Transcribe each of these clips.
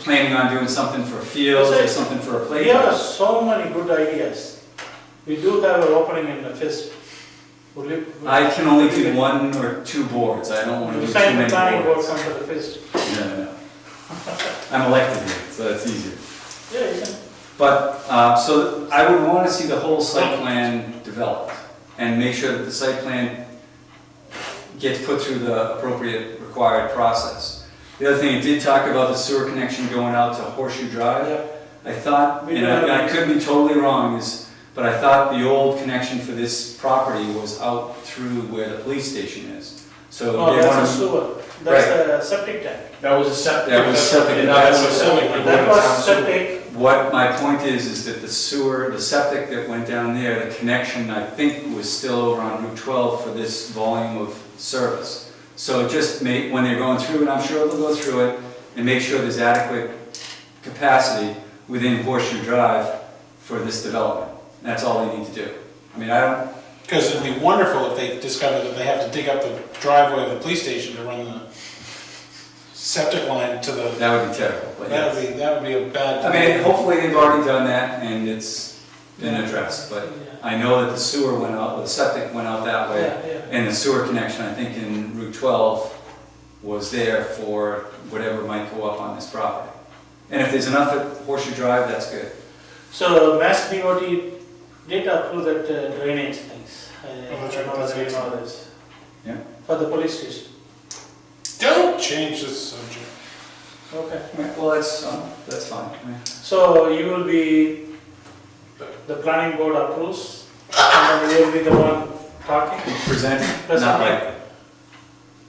planning on doing something for fields or something for a There are playground. so many good ideas. We do have an opening in the FISP. Would you- I can only do one or two boards, I don't want to You do too sign the many planning board, boards. come to the FISP. No, no, no. I'm elected here, so that's easier. Yeah, you can. But, uh, so I would want to see the whole site plan developed and make sure that the site plan gets put through the appropriate required process. The other thing, it did talk about the sewer connection going out to Horseshoe Drive. Yeah. I thought, and I and I could be totally wrong, is, but I thought the old connection for this property was out through where the police station is. So No, they Oh, that's a want to, sewer, that's a septic tank. That was a septic. That was septic. And that was a septic. That was septic, what my point is, is that the sewer, the septic that went down there, the connection, I think, was still over on Route 12 for this volume of service. So just make, when they're going through, and I'm sure they'll go through it, and make sure there's adequate capacity within Horseshoe Drive for this development. That's all they need to do. I mean, I don't, Because it'd be wonderful if they discovered that they have to dig up the driveway of the police station to run the septic line to the, that would be terrible, but that yes. would be, that would be a bad. I mean, hopefully they've already done that and it's been addressed, but I know that the sewer went out, the septic went out that way. yeah, yeah. And the sewer connection, I think in Route 12, was there for whatever might go up on this property. And if there's enough at Horseshoe Drive, that's good. So Mass DOT did approve that uh, drainage things. Uh, I- Oh, that's I right, know that's that you right. know this. Yeah. For the police station, Don't change the subject. okay. Well, that's, um, that's fine. Yeah. So you will be, the planning board approves, and then you will be the one talking? Present, That's not okay. like,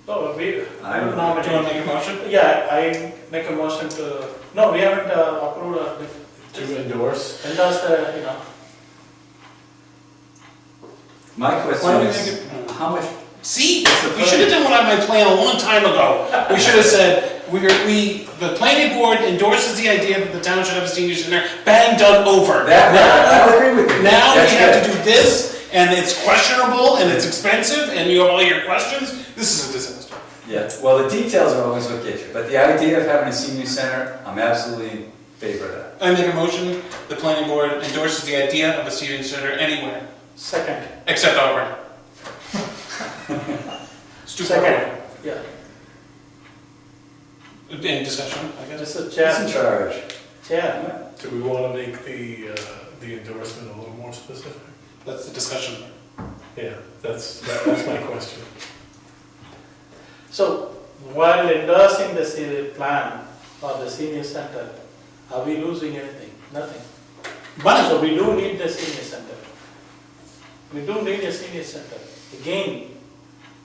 Oh, we, I don't- no, Do you want to make a motion? Yeah, I make a motion to, no, we haven't uh, approved, uh, To endorse. and that's the, uh, you know, my Why question do we is, make how much, See, the we should have done what I had planned a long time ago. We should have said, we, are- we, the planning board endorses the idea that the town should have a senior center, bang, done, over. that, I would agree with you. Now we That's have good. to do this, and it's questionable, and it's expensive, and you have all your questions. This is a disaster. Yeah, well, the details are always what get you, but the idea of having a senior center, I'm absolutely in favor of that. I make a motion, the planning board endorses the idea of a senior center anywhere, second, except Auburn. Stupid. second, yeah, Any discussion, I guess? this is Who's chair, in charge? chair. Do we want to make the, uh, the endorsement a little more specific? That's the discussion. Yeah, that's, that- that's my question. So while endorsing the senior plan or the senior center, are we losing anything? Nothing. Money, So we do need the senior center. We do need a senior center. Again,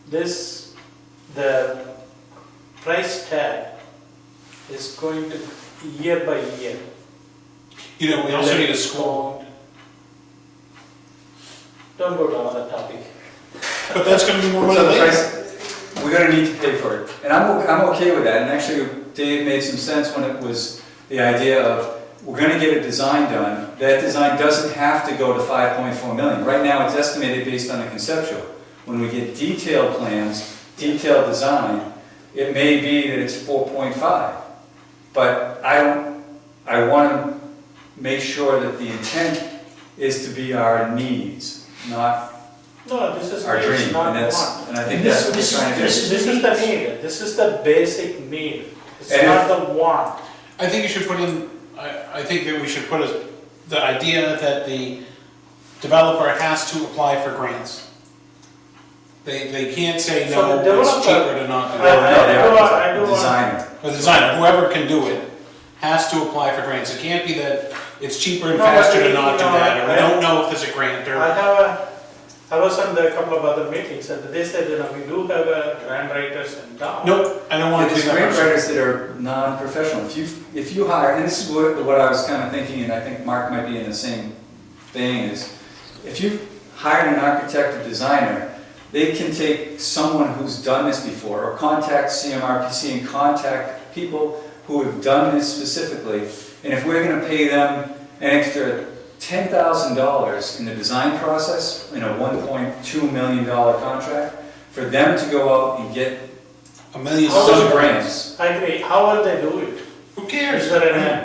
this, the price tag is going to year by year. you know, we also need a school, Don't go down on the topic. but that's gonna be more money So the later. price, we're gonna need to pay for it, and I'm, o- I'm okay with that, and actually Dave made some sense when it was the idea of, we're gonna get a design done, that design doesn't have to go to five point four million, right now it's estimated based on the conceptual. When we get detailed plans, detailed design, it may be that it's four point five, but I, don't- I wanna make sure that the intent is to be our needs, not No, this is, our dream, it's not and one. that's, and I think that's what we're This is, trying to do. this is- this is the need, this is the basic need. It's And not the want. I think you should put in, I, I think that we should put a, the idea that the developer has to apply for grants. They, they can't say, So the no, it's developer- cheaper to not do No, it. no, they I- I do want- I do are, the want- designer. The designer, whoever can do it, has to apply for grants. It can't be that it's cheaper and No, but faster to we- not do no, that, or I- we don't know if there's a grant, I or, have a, I was on the couple of other meetings and they said, you know, we do have a grant writers in town. nope, I don't want to do There's that grant person. writers that are non-professional. If you, if you hire, and this is what, what I was kind of thinking, and I think Mark might be in the same thing, is if you hired an architect or designer, they can take someone who's done this before, or contact CMRPC and contact people who have done this specifically. And if we're gonna pay them an extra ten thousand dollars in the design process, in a one point two million dollar contract, for them to go out and get A million How Oh, dollars. some grants. I agree, how will they do it? Who cares? Is there an, uh,